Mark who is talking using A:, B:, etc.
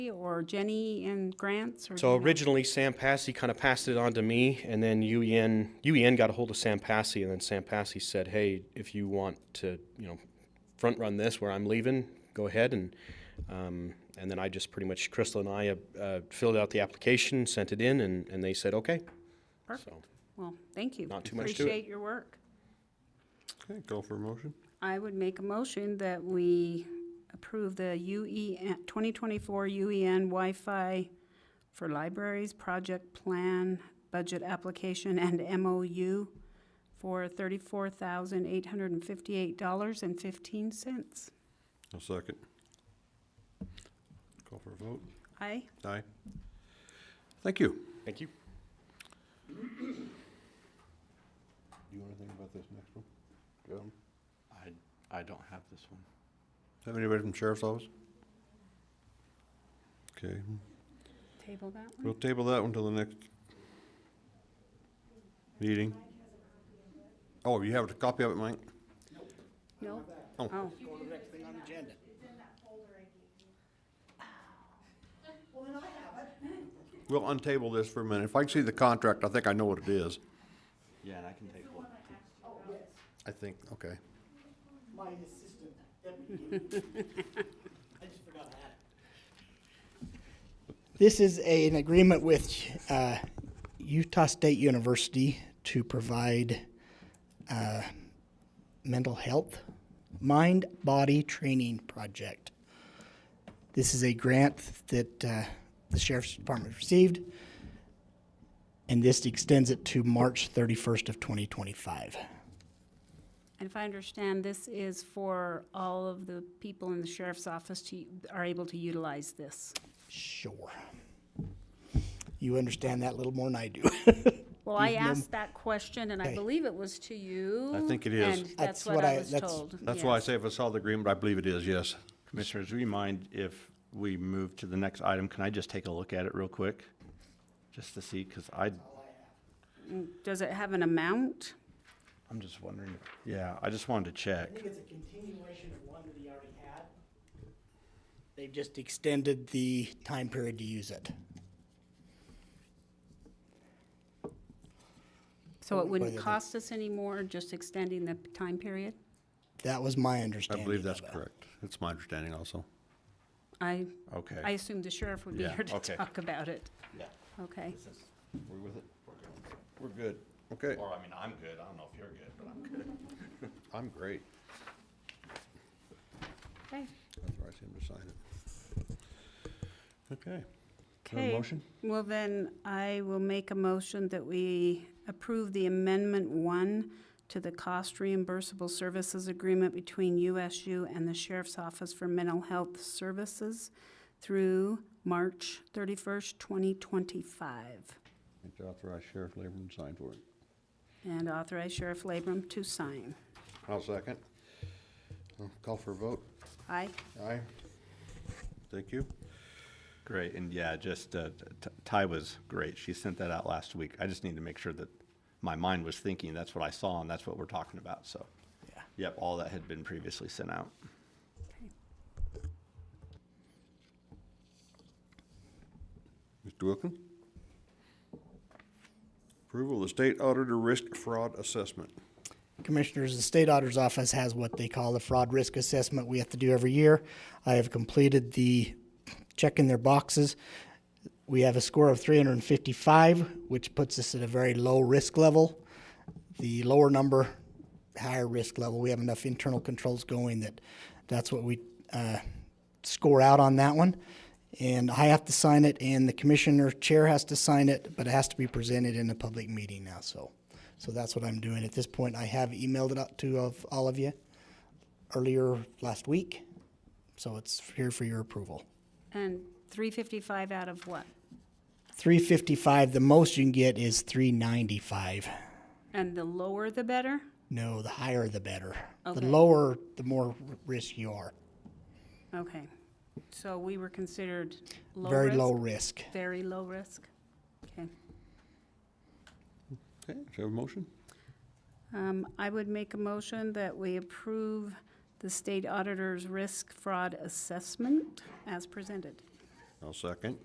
A: or Jenny and Grants? or do
B: So
A: you know?
B: originally, Sam Passy kind of passed it on to me, and then UEN UEN got a hold of Sam Passy, and then Sam Passy said, "Hey, if you want to, you know, front run this where I'm leaving, go ahead." And um, and then I just pretty much Crystal and I uh, uh, filled out the application, sent it in, and, and they said, "Okay."
A: Perfect. Well, thank you.
B: Not too much to it.
A: Appreciate your work.
C: Okay, call for a motion.
A: I would make a motion that we approve the E UEN, 2024 UEN E Wi-Fi for Libraries Project Plan Budget Application and MOU for $34,858.15.
C: I'll second. Call for a vote.
A: Aye?
C: Aye. Thank you.
B: Thank you.
C: Do you want to think about this next one? Joe?
D: I, I don't have this one.
C: Have anybody from Sheriff's Office? Okay,
A: Table that one?
C: we'll table that one till the next meeting. Oh, you have a copy of it, Mike?
A: No?
C: Oh.
A: Oh,
C: We'll untable this for a minute. If I can see the contract, I think I know what it is.
D: Yeah, and I can take one.
C: I think, okay.
E: my assistant deputy. I just forgot to add it. This is a- an agreement with uh, Utah State University to provide uh, mental health mind body training project. This is a grant that uh, the sheriff's department received, and this extends it to March 31st of 2025.
A: and if I understand, this is for all of the people in the sheriff's office to, are able to utilize this.
E: Sure. You understand that a little more than I do.
A: Well, I asked that question, and I
E: Okay.
A: believe it was to you.
C: I think it is.
A: And that's
E: That's
A: what
E: what
A: I
E: I-
A: was
E: that's-
A: told.
C: That's why I
A: yes.
C: say if I saw the agreement, I believe it is, yes.
D: Commissioners, do you mind if we move to the next item? Can I just take a look at it real quick? Just to see, because I,
A: Does it have an amount?
D: I'm just wondering, yeah, I just wanted to check.
E: I think it's a continuation of one that he already had. They've just extended the time period to use it.
A: So it wouldn't
E: Whether Oh, the-
A: cost us any more, just extending the time period?
E: That was my
C: I
E: understanding.
C: believe that's
E: of it.
C: correct. That's my understanding also.
A: I, I
D: Okay.
A: assumed the sheriff would be
D: Yeah,
A: here to
D: okay.
A: talk about it.
D: Yeah.
A: Okay.
D: We're with it?
C: We're good. Okay.
D: Or, I mean, I'm good. I don't know if you're good, but I'm good.
C: I'm great.
A: Okay.
C: Authorize him to sign it. Okay. Have a
A: Okay.
C: motion?
A: Well, then I will make a motion that we approve the Amendment One to the Cost Reimbursable Services Agreement between USU and the Sheriff's Office for Mental Health Services through March thirty-first, twenty twenty-five,
C: Need to Authorize Sheriff Laborman to sign for it.
A: and authorize Sheriff Labram to sign.
C: I'll second. Uh, Call for a vote.
A: Aye?
C: Aye. Thank you.
D: Great, and yeah, just, uh, T- Ty was great. She sent that out last week. I just need to make sure that my mind was thinking, that's what I saw, and that's what we're talking about, so.
E: Yeah.
D: Yep, all that had been previously sent out.
C: Mr. Wilkin? Approval of the State Auditor Risk Fraud Assessment.
E: Commissioners, the state auditor's office has what they call the fraud risk assessment we have to do every year. I have completed the check in their boxes. We have a score of 355, which puts us at a very low risk level. The lower number, higher risk level. We have enough internal controls going that that's what we uh, score out on that one. And I have to sign it, and the commissioner chair has to sign it, but it has to be presented in a public meeting now. So, so that's what I'm doing at this point. I have emailed it out to of all of you earlier last week, so it's here for your approval.
A: And three fifty-five out of what?
E: 355. The most you can get is 395.
A: And the lower the better?
E: No, the higher the better.
A: Okay.
E: The lower, the more r- risk you are.
A: Okay. So we were considered low
E: Very
A: risk?
E: low risk.
A: Very low risk? Okay.
C: Okay, do you have a motion?
A: Um, I would make a motion that we approve the state auditor's risk fraud assessment as presented.
C: I'll second.